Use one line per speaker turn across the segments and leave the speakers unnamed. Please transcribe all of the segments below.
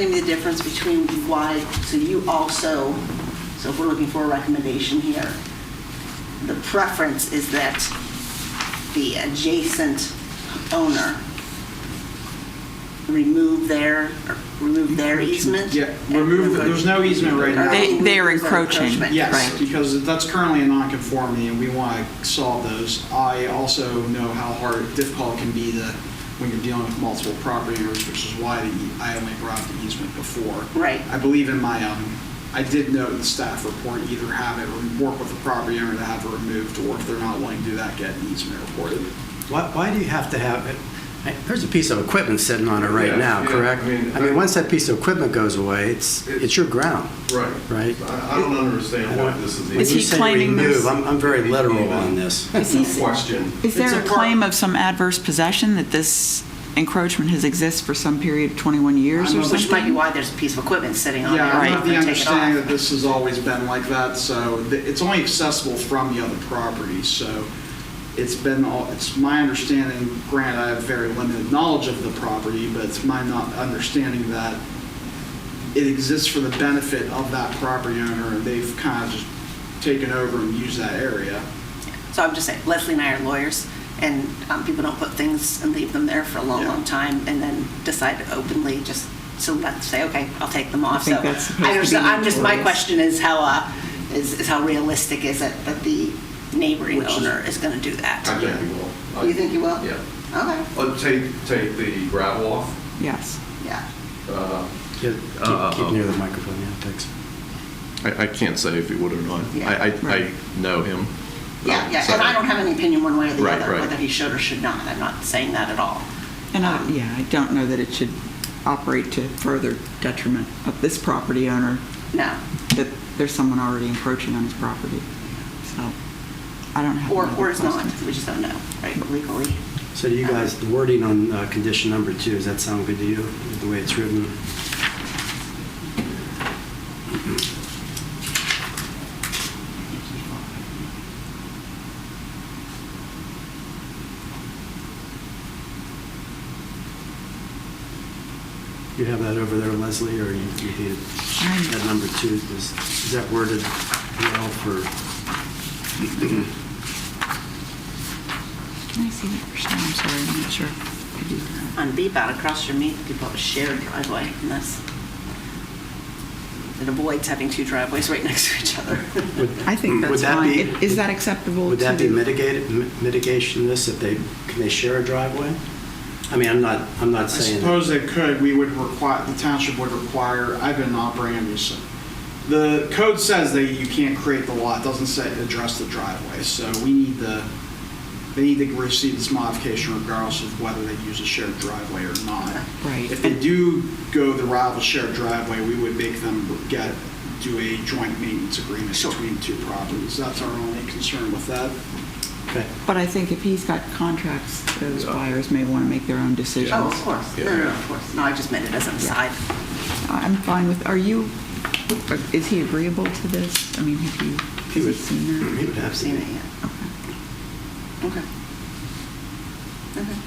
Maybe the difference between why, so you also, so if we're looking for a recommendation here, the preference is that the adjacent owner remove their, or remove their easement?
Yeah, remove, the- there's no easement right now.
They- they are
Remove their
encroaching,
encroachment.
Yes,
Right.
because that's currently a nonconformity, and we want to solve those. I also know how hard, difficult it can be to, when you're dealing with multiple property owners, which is why the e- I only brought up the easement before.
Right.
I believe in my, um, I did note in the staff report, either have it, or work with the property owner to have it removed, or if they're not willing to do that, get an easement reported.
Why, why do you have to have it? I- There's a piece of equipment sitting on it
Yeah,
right now,
yeah,
correct?
I mean-
I mean, once that piece of equipment goes away, it's,
It-
it's your ground.
Right.
Right.
I, I don't understand why this is
When
Is
you
he
even
say
claiming
remove,
this?
I'm, I'm very literal on this.
Is he-
a question.
Is
It's
there
a
a
par-
claim of some adverse possession that this encroachment has existed for some period of 21 years or
I'm-
something?
Which might be why there's a piece of equipment sitting on there.
Yeah, I'm
Right.
of the
Take it
understanding
off.
that this has always been like that, so th- it's only accessible from the other property, so it's been, all. it's my understanding, granted, I have very limited knowledge of the property, but it's my not understanding that it exists for the benefit of that property owner, and they've kind of just taken over and used that area.
So I'm just saying, Leslie and I are lawyers, and um, people don't put things and leave them there for a long,
Yeah.
long time, and then decide to openly just so let's say, okay, I'll take them off.
think
so
that's supposed
I
to be
understand. I'm just my
notorious.
question is how uh, is, is how realistic is it that the neighboring
Which is-
owner is, going to do that?
I think you will. I-
you think you will?
Yeah.
Okay.
Uh, take, take the gravel off.
Yes.
Yeah.
Uh,
Yeah,
Uh,
Keep, keep near the microphone, yeah, thanks.
I, I can't say if he would or not.
Yeah.
I, I,
Right.
I know him.
Yeah,
Uh,
yeah,
so-
and I don't have any opinion one way or the
Right,
other
right.
whether he should or should not. I'm not saying that at all. Um,
And I, yeah, I don't know that it should operate to further detriment of this property owner,
No,
that there's someone already encroaching on his property. So I don't have
or
another
or is not.
question.
We just don't know, right? Legally.
So do you
Uh-huh.
guys, the wording on uh, condition number two, does that sound good to you, the way it's written? You have that over there, Leslie, or you, you need
I'm-
that number two, is, is that worded well for,
Can I see that first time? I'm sorry, I'm not sure. I do that.
on Beebout across from me, people have a shared driveway, and that's, it avoids having two driveways right next to each other.
would
I think
Mm, Would
that's
that
fine.
be-
It- Is that acceptable to?
Would that be
the-
mitigated, mi- mitigation this, if they, can they share a driveway? I mean, I'm not, I'm
I
not saying.
suppose they could, we would require, the township would require, I've been operating this. The code says that you can't create the lot, doesn't say address the driveway, so we need the, they need to receive this modification regardless of whether they use a shared driveway or not.
Right.
If they do go the route of a shared driveway, we would make them get, do a joint maintenance agreement
Sure.
between two properties. That's our only concern with that.
Okay.
But I think if he's got contracts, those
Yeah.
buyers may want to make their own decisions.
Oh, of course, no, no, no, of course, no, I just meant it as an aside.
I'm fine with, are you, is he agreeable to this? I mean, have you,
He
has he
would,
seen
he
that?
would have
I've
to.
seen it
be.
yet. Okay. Okay.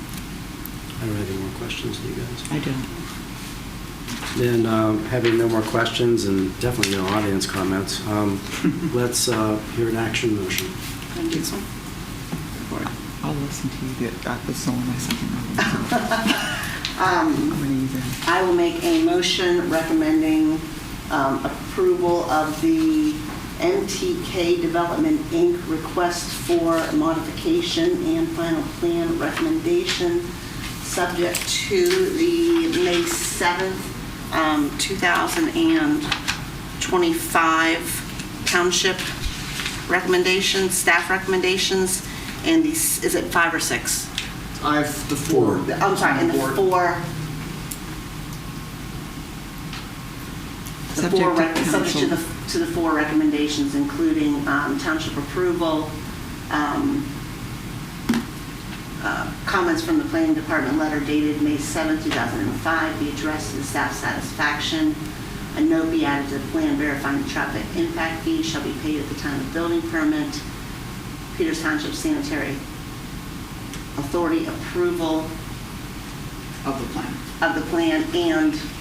I don't have any more questions, do you guys?
I don't.
Then, um, having no more questions and definitely no audience comments, um, let's uh, hear an action motion.
Can I do this one?
I'll listen to you, get- uh, this is only my second round.
Um,
I'm going to use it.
I will make a motion recommending um, approval of the MTK Development Inc. request for modification and final plan recommendation, subject to the May 7th, um, 2025 Township recommendations, staff recommendations, and the, s- is it five or six?
I have the four.
The- I'm sorry, and the
Board.
four. The four,
Subject to
rec- subject to
council.
the, to the four recommendations, including um, township approval, um, uh, comments from the planning department letter dated May 7, 2005, be addressed in staff satisfaction. A note be added to the plan verifying the traffic impact fee shall be paid at the time of building permit. Peters Township Sanitary Authority approval
Of the plan.
of the plan and